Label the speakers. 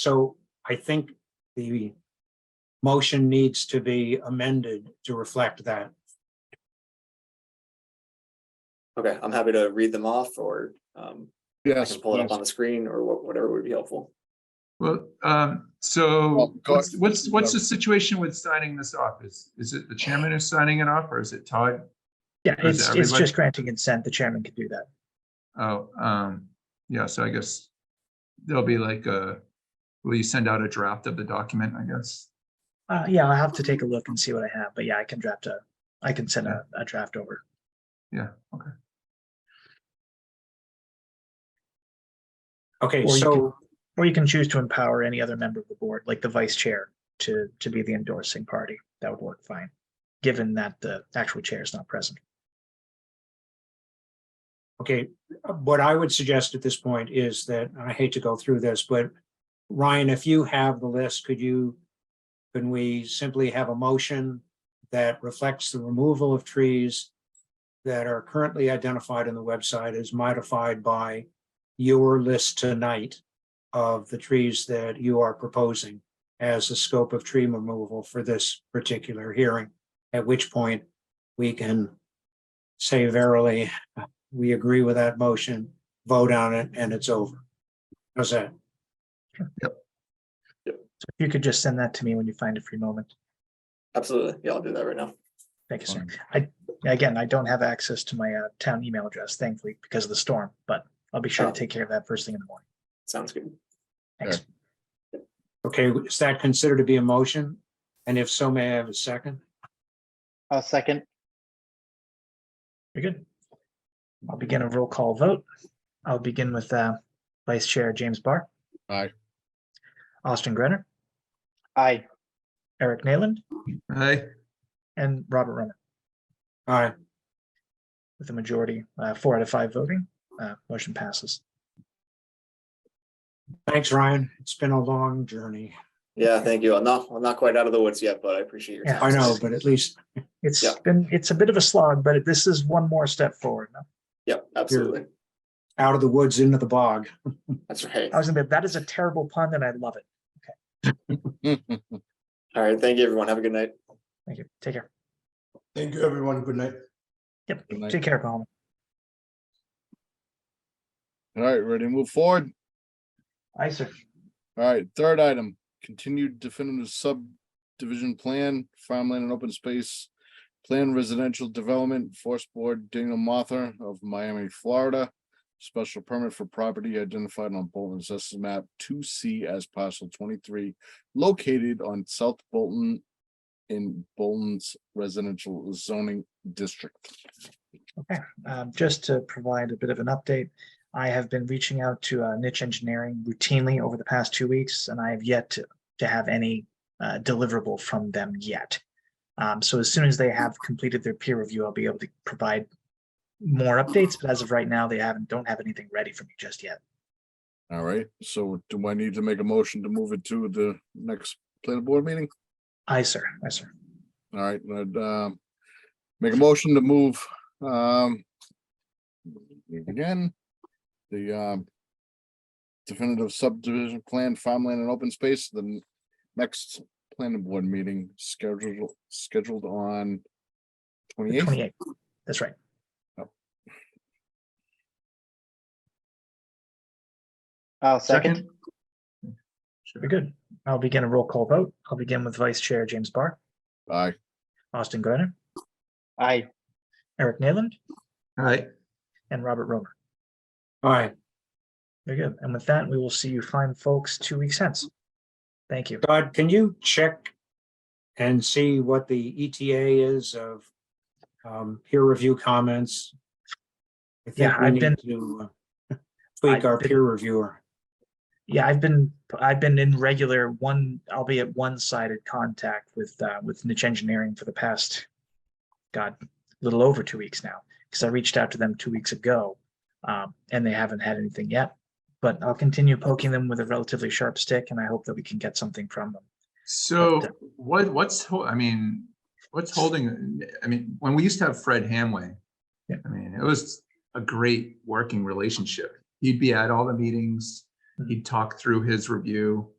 Speaker 1: So I think the motion needs to be amended to reflect that.
Speaker 2: Okay, I'm happy to read them off or um, I
Speaker 3: Yes.
Speaker 2: can pull it up on
Speaker 3: please.
Speaker 2: the screen or wha- whatever would be helpful.
Speaker 4: Well, um,
Speaker 3: Well,
Speaker 4: so
Speaker 3: go-
Speaker 4: what's, what's, what's the situation with signing this off? Is, is it the chairman who's signing it off or is it Todd?
Speaker 5: Yeah,
Speaker 4: Or is
Speaker 5: it's,
Speaker 4: it
Speaker 5: it's
Speaker 4: everybody?
Speaker 5: just granting consent. The chairman can do that.
Speaker 4: Oh, um, yeah, so I guess there'll be like a, will you send out a draft of the document, I guess?
Speaker 5: Uh, yeah, I'll have to take a look and see what I have, but yeah, I can draft a, I can send a, a draft over.
Speaker 1: Okay,
Speaker 5: Or you can-
Speaker 1: so,
Speaker 5: Or you can choose to empower any other member of the board, like the vice chair, to, to be the endorsing party. That would work fine, given that the actual chair is not present.
Speaker 1: okay, what I would suggest at this point is that, and I hate to go through this, but Ryan, if you have the list, could you, can we simply have a motion that reflects the removal of trees that are currently identified in the website as modified by your list tonight of the trees that you are proposing as the scope of tree removal for this particular hearing, at which point we can say verily, we agree with that motion, vote on it, and it's over. How's that?
Speaker 5: So if you could just send that to me when you find a free moment.
Speaker 2: Absolutely. Yeah, I'll do that right now.
Speaker 5: Thank you, sir. I, again, I don't have access to my uh, town email address, thankfully, because of the storm, but I'll be sure
Speaker 2: Oh.
Speaker 5: to take care of that first thing in the morning.
Speaker 2: Sounds good.
Speaker 5: Thanks.
Speaker 1: Okay, is that considered to be a motion? And if so, may I have a second?
Speaker 6: I'll second.
Speaker 5: You're good. I'll begin a roll call vote. I'll begin with uh, Vice Chair James Barr.
Speaker 3: Aye.
Speaker 5: Austin Grenner,
Speaker 6: Aye.
Speaker 5: Eric Nayland,
Speaker 4: Hey,
Speaker 5: and Robert Roman
Speaker 1: All right,
Speaker 5: with a majority, uh, four out of five voting. uh, Motion passes.
Speaker 1: thanks, Ryan. It's been a long journey.
Speaker 2: Yeah, thank you. I'm not, I'm not quite out of the woods yet, but I appreciate your
Speaker 5: Yeah.
Speaker 2: time.
Speaker 1: I know, but at least
Speaker 5: It's
Speaker 2: Yeah.
Speaker 5: been, it's a bit of a slog, but this is one more step forward.
Speaker 2: Yep, absolutely.
Speaker 1: out of the woods into the bog.
Speaker 2: That's right.
Speaker 5: I was gonna, be that is a terrible pun and I love it.
Speaker 3: Mm,
Speaker 2: All right. Thank you, everyone. Have a good night.
Speaker 5: Thank you. Take care.
Speaker 7: Thank you, everyone. Good night.
Speaker 5: Yep.
Speaker 3: Good night.
Speaker 5: Take care, Colin.
Speaker 3: All right, ready to move forward?
Speaker 5: Aye, sir.
Speaker 3: All right, third item, continued definitive subdivision plan, farmland and open space. Plan residential development, Forest Board Daniel Mother of Miami, Florida. Special permit for property identified on Bolton Assessors Map two C as parcel twenty-three, located on South Bolton in Bolton's residential zoning district.
Speaker 5: Um, just to provide a bit of an update, I have been reaching out to uh, niche engineering routinely over the past two weeks, and I have yet to, to have any uh, deliverable from them yet. Um, so as soon as they have completed their peer review, I'll be able to provide more updates. But as of right now, they haven't don't have anything ready for me just yet.
Speaker 3: All right, so do I need to make a motion to move it to the next planning board meeting?
Speaker 5: Aye, sir. Aye, sir.
Speaker 3: All right, I'd, um, make a motion to move, um, again, the, um, definitive subdivision plan, farmland and open space, the n- next planning board meeting scheduled, scheduled on
Speaker 5: The
Speaker 3: twenty-eighth.
Speaker 5: 28th. That's right.
Speaker 6: I'll second.
Speaker 5: Very good. I'll begin a roll call vote. I'll begin with Vice Chair James Barr,
Speaker 3: Aye,
Speaker 5: Austin Grenner,
Speaker 6: Aye.
Speaker 5: Eric Nayland,
Speaker 4: all right,
Speaker 5: and Robert Romer.
Speaker 1: All right,
Speaker 5: Very good. And with that, we will see you fine folks two weeks hence. Thank you.
Speaker 1: Todd, can you check and see what the ETA is of um, peer review comments? I think
Speaker 5: Yeah,
Speaker 1: we
Speaker 5: I've
Speaker 1: need
Speaker 5: been-
Speaker 1: to uh, tweak our
Speaker 5: I've been-
Speaker 1: peer reviewer.
Speaker 5: Yeah, I've been, I've been in regular one, albeit one-sided contact with, uh, with niche engineering for the past, God, a little over two weeks now, because I reached out to them two weeks ago. Um, and they haven't had anything yet, but I'll continue poking them with a relatively sharp stick and I hope that we can get something from them.
Speaker 4: so what, what's, ho- I mean, what's holding, I mean, when we used to have Fred Hamway.
Speaker 5: Yeah.
Speaker 4: I mean, it was a great working relationship. He'd be at all the meetings, he'd talk through his review.